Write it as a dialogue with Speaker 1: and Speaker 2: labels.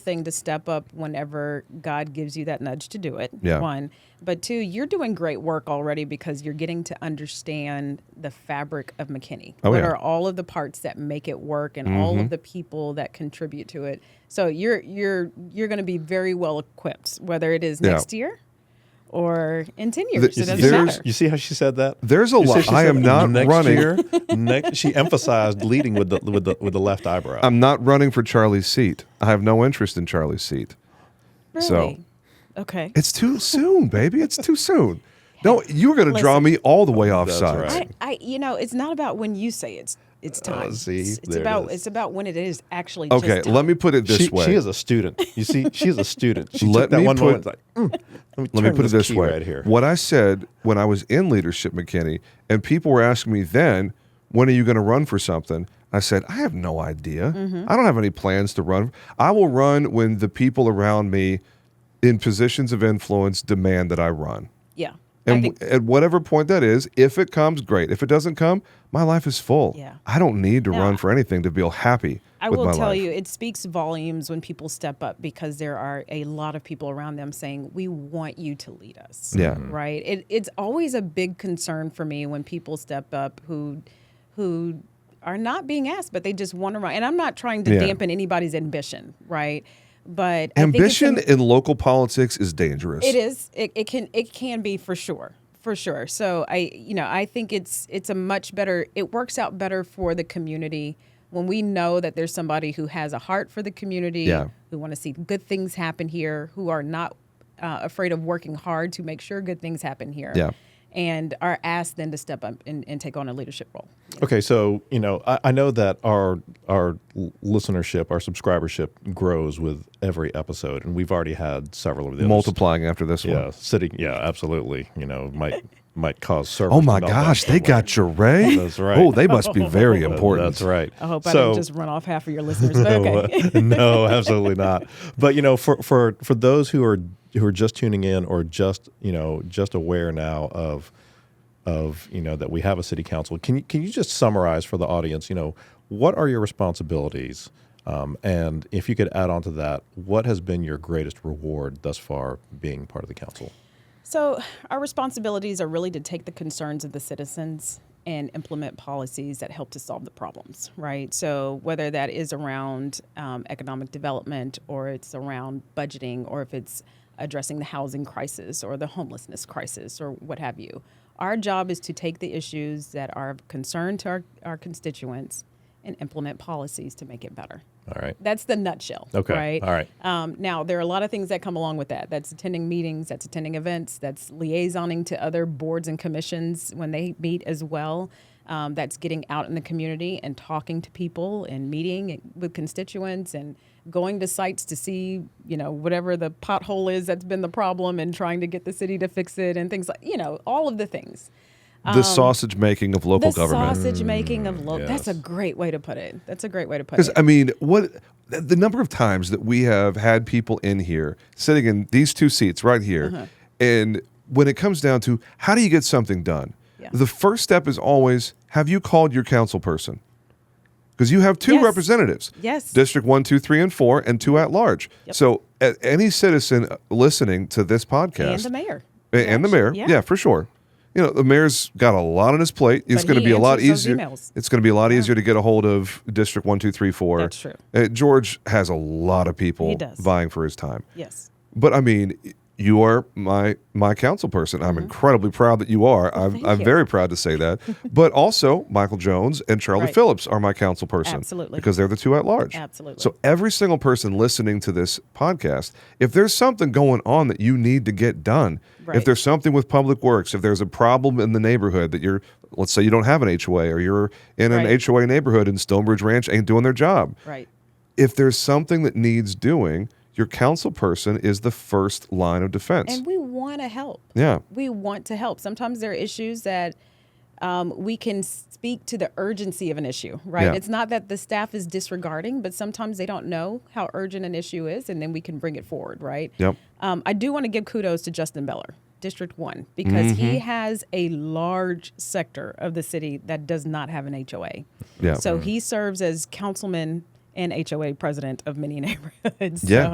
Speaker 1: thing to step up whenever God gives you that nudge to do it.
Speaker 2: Yeah.
Speaker 1: One. But two, you're doing great work already because you're getting to understand the fabric of McKinney.
Speaker 2: Oh,
Speaker 1: what
Speaker 2: yeah. Mm-hmm.
Speaker 1: are all of the parts that make it work and all of the people that contribute to it. So you're you're you're gonna be very well equipped, whether it is
Speaker 2: Yeah.
Speaker 1: next year or in ten years.
Speaker 2: Th-
Speaker 1: it doesn't
Speaker 2: there's-
Speaker 1: matter.
Speaker 3: You see how she said that?
Speaker 2: There's a
Speaker 3: You see
Speaker 2: lot-
Speaker 3: she
Speaker 2: I
Speaker 3: said
Speaker 2: am not
Speaker 3: next
Speaker 2: running.
Speaker 3: Year, next, she emphasized leading with the with the with the left eyebrow.
Speaker 2: I'm not running for Charlie's seat. I have no interest in Charlie's seat.
Speaker 1: Really?
Speaker 2: so-
Speaker 1: Okay.
Speaker 2: It's too soon, baby. It's too soon. No, you're going to draw
Speaker 1: Listen.
Speaker 2: me all the way offside.
Speaker 3: right.
Speaker 1: I, I you know, it's not about when you say it's it's
Speaker 2: Uh,
Speaker 1: time.
Speaker 3: see,
Speaker 1: it's it's
Speaker 3: there it
Speaker 1: about
Speaker 3: is.
Speaker 1: it's about when it is actually just
Speaker 2: Okay,
Speaker 1: time.
Speaker 2: let me put it this
Speaker 3: she,
Speaker 2: way.
Speaker 3: she is a student. You see, she is a student. She
Speaker 2: Let
Speaker 3: took that
Speaker 2: me
Speaker 3: one
Speaker 2: put-
Speaker 3: moment. Like, "Mm, let me,
Speaker 2: Let me
Speaker 3: turn
Speaker 2: put it this
Speaker 3: key
Speaker 2: way.
Speaker 3: right here.
Speaker 2: What I said when I was in leadership, McKinney, and people were asking me then, when are you going to run for something? I said, I have no idea.
Speaker 1: Mm-hmm.
Speaker 2: I don't have any plans to run. I will run when the people around me in positions of influence demand that I run.
Speaker 1: Yeah. I
Speaker 2: And
Speaker 1: think-
Speaker 2: w- at whatever point that is, if it comes, great. If it doesn't come, my life is full.
Speaker 1: Yeah.
Speaker 2: I don't need to
Speaker 1: No, I-
Speaker 2: run for anything to feel happy
Speaker 1: I
Speaker 2: with
Speaker 1: will
Speaker 2: my
Speaker 1: tell
Speaker 2: life.
Speaker 1: you, it speaks volumes when people step up because there are a lot of people around them saying, "We want you to lead us."
Speaker 2: Yeah. Mhm.
Speaker 1: right. It, it's always a big concern for me when people step up who, who are not being asked, but they just want to run. And I'm not trying to
Speaker 2: Yeah.
Speaker 1: dampen anybody's ambition, right? But I think it's
Speaker 2: Ambition
Speaker 1: im-
Speaker 2: in local politics is dangerous.
Speaker 1: it is. It, it can. It can be for sure. For sure. So I, you know, I think it's it's a much better. It works out better for the community when we know that there's somebody who has a heart for the community,
Speaker 2: Yeah.
Speaker 1: who want to see good things happen here, who are not uh, afraid of working hard to make sure good things happen here.
Speaker 2: Yeah.
Speaker 1: And are asked then to step up and, and take on a leadership role.
Speaker 3: Okay, so you know, I, I know that our our l- listenership, our subscribership grows with every episode, and we've already had several of those.
Speaker 2: Multiplying after this one.
Speaker 3: Yeah, sitting. Yeah, absolutely. You know, might might cause servers.
Speaker 2: Oh my
Speaker 3: to melt down
Speaker 2: gosh, they
Speaker 3: somewhere.
Speaker 2: got your Ray.
Speaker 3: That's right.
Speaker 2: Oh, they must be very
Speaker 3: Uh,
Speaker 2: important.
Speaker 3: That's right.
Speaker 1: I hope I
Speaker 3: So-
Speaker 1: didn't just run off half of your listeners. But
Speaker 3: No,
Speaker 1: okay.
Speaker 3: uh, no, absolutely not. But you know, for for for those who are who are just tuning in or just you know just aware now of of you know that we have a city council, can you can you just summarize for the audience? You know, what are your responsibilities? Um, and if you could add on to that, what has been your greatest reward thus far being part of the council?
Speaker 1: So, our responsibilities are really to take the concerns of the citizens and implement policies that help to solve the problems, right? So, whether that is around um, economic development or it's around budgeting or if it's addressing the housing crisis or the homelessness crisis or what have you, our job is to take the issues that are of concern to our, our constituents and implement policies to make it better.
Speaker 3: All right.
Speaker 1: That's the nutshell.
Speaker 3: Okay.
Speaker 1: Right.
Speaker 3: All right.
Speaker 1: Um, now there are a lot of things that come along with that. That's attending meetings. That's attending events. That's liaisoning to other boards and commissions when they meet as well. Um, that's getting out in the community and talking to people and meeting with constituents and going to sites to see you know whatever the pothole is that's been the problem and trying to get the city to fix it and things like you know all of the things.
Speaker 2: The sausage making of local
Speaker 1: Um, The
Speaker 2: government.
Speaker 1: sausage making of local. That's a
Speaker 3: Mm, yes.
Speaker 1: great way to put it. That's a great way to put it.
Speaker 2: Because I mean, what th- the number of times that we have had people in here sitting in these two seats right here,
Speaker 1: Uh-huh.
Speaker 2: and when it comes down to how do you get something done,
Speaker 1: Yeah.
Speaker 2: the first step is always have you called your council person? Because you have two
Speaker 1: Yes.
Speaker 2: representatives.
Speaker 1: Yes.
Speaker 2: District one, two, three, and four, and two at large.
Speaker 1: Yep.
Speaker 2: So, a- any citizen uh, listening to this podcast
Speaker 1: and the mayor.
Speaker 2: A- and the mayor. Yeah. for sure. You know, the mayor's got a lot on his plate. It's
Speaker 1: But
Speaker 2: going to
Speaker 1: he
Speaker 2: be a lot
Speaker 1: answers those
Speaker 2: easier.
Speaker 1: emails.
Speaker 2: It's going to be a lot easier to get a hold of District One, Two, Three, Four.
Speaker 1: That's true.
Speaker 2: Uh, George has a lot of people
Speaker 1: He does.
Speaker 2: vying for his time.
Speaker 1: Yes.
Speaker 2: But I mean, you are my my council person. I'm incredibly proud that you are. I'm,
Speaker 1: Mm-hmm. thank
Speaker 2: I'm
Speaker 1: you.
Speaker 2: very proud to say that. but also, Michael Jones and Charlie
Speaker 1: Right.
Speaker 2: Phillips are my council person.
Speaker 1: Absolutely.
Speaker 2: Because they're the two at large.
Speaker 1: Absolutely.
Speaker 2: So every single person listening to this podcast, if there's something going on that you need to get done, if
Speaker 1: Right.
Speaker 2: there's something with public works, if there's a problem in the neighborhood that you're, let's say you don't have an HOA or you're in an
Speaker 1: Right.
Speaker 2: HOA neighborhood and Stonebridge Ranch ain't doing their job,
Speaker 1: Right.
Speaker 2: if there's something that needs doing, your council person is the first line of defense.
Speaker 1: And we want to help.
Speaker 2: yeah.
Speaker 1: We want to help. Sometimes there are issues that um, we can speak to the urgency of an issue, right?
Speaker 2: Yeah.
Speaker 1: It's not that the staff is disregarding, but sometimes they don't know how urgent an issue is, and then we can bring it forward, right?
Speaker 2: Yep.
Speaker 1: Um, I do want to give kudos to Justin Beller, District 1, because he
Speaker 2: Mm-hmm.
Speaker 1: has a large sector of the city that does not have an HOA.
Speaker 2: Yeah.
Speaker 1: So he serves as councilman and HOA president of many neighborhoods.
Speaker 2: Yeah.
Speaker 1: So